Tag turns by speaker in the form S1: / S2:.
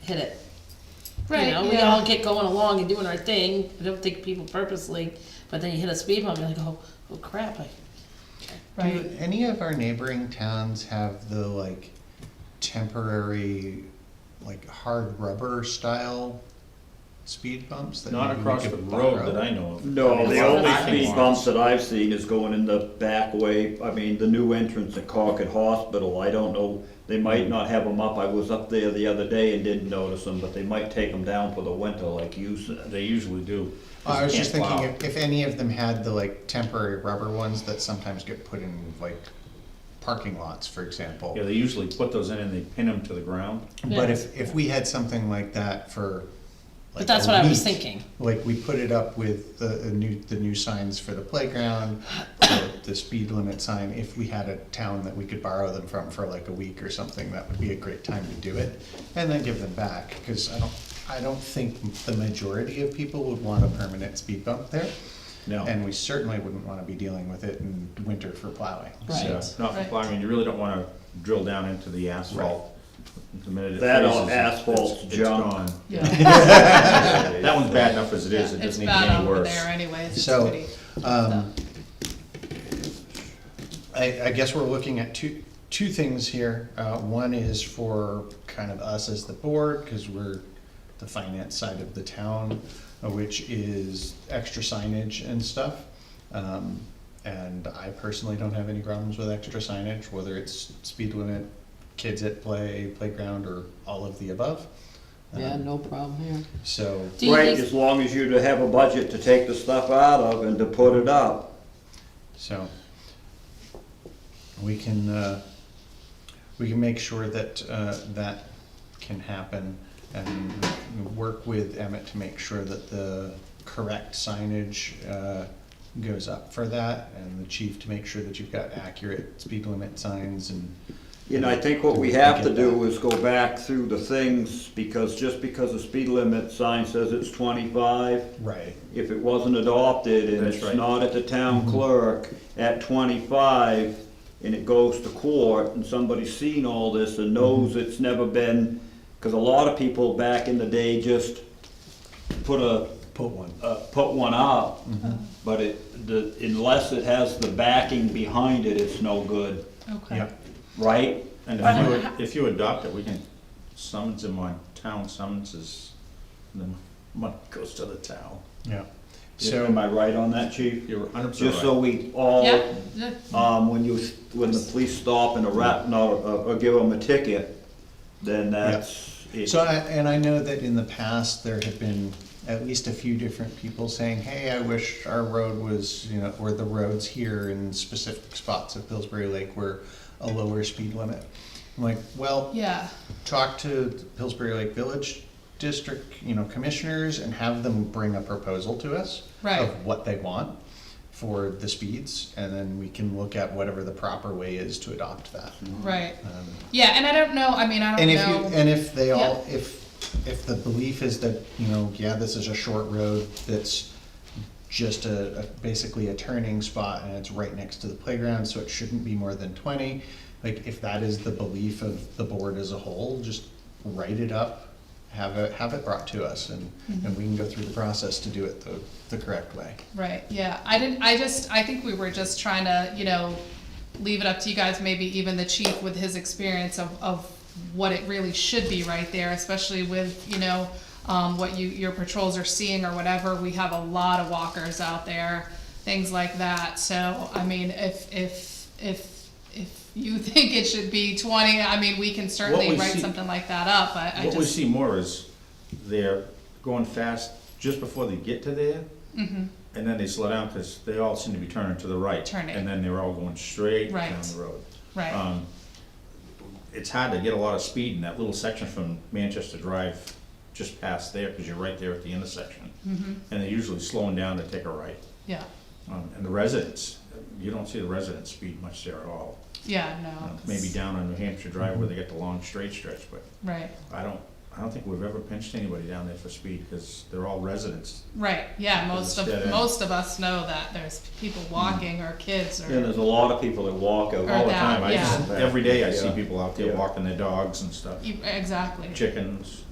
S1: hit it.
S2: Right,
S1: You know, we
S2: yeah.
S1: all get going along and doing our thing. I don't think people purposely, but then you hit a speed bump, you're like, oh, oh crap. I,
S2: Right.
S3: Do any of our neighboring towns have the like temporary, like hard rubber style speed bumps? that
S4: Not
S3: maybe we
S4: across
S3: could
S4: the
S3: borrow?
S4: road that I know of.
S5: No, the only
S4: Lots of
S5: speed
S4: them.
S5: bumps that I've seen is going in the back way, I mean, the new entrance at Concord Hospital, I don't know, they might not have them up, I was up there the other day and didn't notice them, but they might take them down for the winter like you said.
S4: They usually do.
S3: Oh, I was just
S4: Can't
S3: thinking
S4: plow.
S3: if, if any of them had the like temporary rubber ones that sometimes get put in like parking lots, for example.
S4: Yeah, they usually put those in and they pin them to the ground.
S3: But
S1: Yeah.
S3: if, if we had something like that for. like,
S1: But that's
S3: a
S1: what I was
S3: week,
S1: thinking.
S3: Like, we put it up with the, the new, the new signs for the playground, the, the speed limit sign, if we had a town that we could borrow them from for like a week or something, that would be a great time to do it. And then give them back, cause I don't, I don't think the majority of people would want a permanent speed bump there.
S4: No.
S3: And we certainly wouldn't wanna be dealing with it in winter for plowing,
S4: So,
S3: so.
S1: Right.
S4: Not for
S2: Right.
S4: plowing, you really don't wanna drill down into the asphalt. The minute it
S5: That or
S4: freezes, it's-
S5: asphalt's
S4: it's
S5: junk.
S4: gone.
S2: Yeah.
S4: That one's bad enough as it is, it
S2: It's
S4: doesn't need to be
S2: bad
S4: any
S2: over
S4: worse.
S2: there anyways, it's
S3: So,
S2: pretty.
S3: Um, I, I guess we're looking at two, two things here. Uh, one is for kind of us as the board, because we're the finance side of the town, uh, which is extra signage and stuff. Um, and I personally don't have any problems with extra signage, whether it's speed limit, kids at play, playground, or all of the above.
S6: Yeah,
S3: Um,
S6: no problem here.
S3: So,
S1: Do you
S5: Right,
S1: think-
S5: as long as you have a budget to take the stuff out of and to put it up.
S3: So we can, uh, we can make sure that, uh, that can happen and work with Emmett to make sure that the correct signage, uh, goes up for that and the chief to make sure that you've got accurate speed limit signs and.
S5: You know, I think what we have to do is go back through the things, because just because the speed limit sign says it's twenty-five,
S3: Right.
S5: if it wasn't adopted and
S4: That's
S5: it's
S4: right.
S5: not at the town clerk at twenty-five, and it goes to court, and somebody's seen all this and knows it's never been, because a lot of people back in the day just put a,
S3: Put one.
S5: uh, put one up, but it, the, unless it has the backing behind it, it's no good,
S2: Okay.
S3: Yeah.
S5: right?
S4: And if you, if you adopt it, we can summons them on town summonses, and then money goes to the town.
S3: Yeah.
S5: Am
S3: So,
S5: I right on that, chief?
S4: You're hundred percent
S5: Just so we all,
S2: Yeah, yeah,
S5: um, when you, when the police stop and a rat, no, or, or give them a ticket, then that's it.
S3: so I, and I know that in the past, there have been at least a few different people saying, hey, I wish our road was, you know, or the roads here in specific spots of Pillsbury Lake were a lower speed limit. I'm like, well,
S2: yeah,
S3: talk to Pillsbury Lake Village District, you know, commissioners and have them bring a proposal to us
S2: Right.
S3: of what they want for the speeds, and then we can look at whatever the proper way is to adopt that.
S2: right.
S3: Um,
S2: Yeah, and I don't know, I mean, I don't
S3: and if
S2: know.
S3: you, and if they all, if, if the belief is that, you know, yeah, this is a short road that's just a, a- basically a turning spot and it's right next to the playground, so it shouldn't be more than twenty. Like, if that is the belief of the board as a whole, just write it up, have it, have it brought to us and, and we can go through the process to do it the, the correct way.
S2: Right, yeah, I didn't, I just, I think we were just trying to, you know, leave it up to you guys, maybe even the chief with his experience of, of what it really should be right there, especially with, you know, um, what you, your patrols are seeing or whatever, we have a lot of walkers out there, things like that, so, I mean, if, if, if, if you think it should be twenty, I mean, we can certainly
S4: we
S2: write
S4: see-
S2: something like that up, but I
S4: What we
S2: just,
S4: see more is they're going fast just before they get to there.
S2: Mm-hmm.
S4: And then they slow down because they all seem to be turning to the right.
S2: Turning.
S4: And then they're all going straight down
S2: Right.
S4: the road.
S2: right,
S4: Um, It's hard to get a lot of speed in that little section from Manchester Drive just past there because you're right there at the intersection.
S2: Mm-hmm.
S4: And they're usually slowing down to take a right.
S2: yeah,
S4: Um, And the residents, you don't see the residents speed much there at all.
S2: yeah,
S4: You
S2: no.
S4: know, Maybe
S2: 'cause-
S4: down on New Hampshire Drive where they get the long straight stretch, but
S2: Right.
S4: I don't, I don't think we've ever pinched anybody down there for speed, because they're all residents.
S2: Right, yeah, most
S4: Because
S2: of,
S4: it's dead end.
S2: most of us know that, there's people walking or kids
S5: And there's
S2: or,
S5: a lot of people that walk out.
S2: Or
S4: All the
S2: that,
S4: time, I,
S2: yeah.
S4: just- every day I see
S5: Yeah.
S4: people out there
S5: Yeah.
S4: walking their dogs and stuff,
S2: You- e, exactly.
S4: chickens.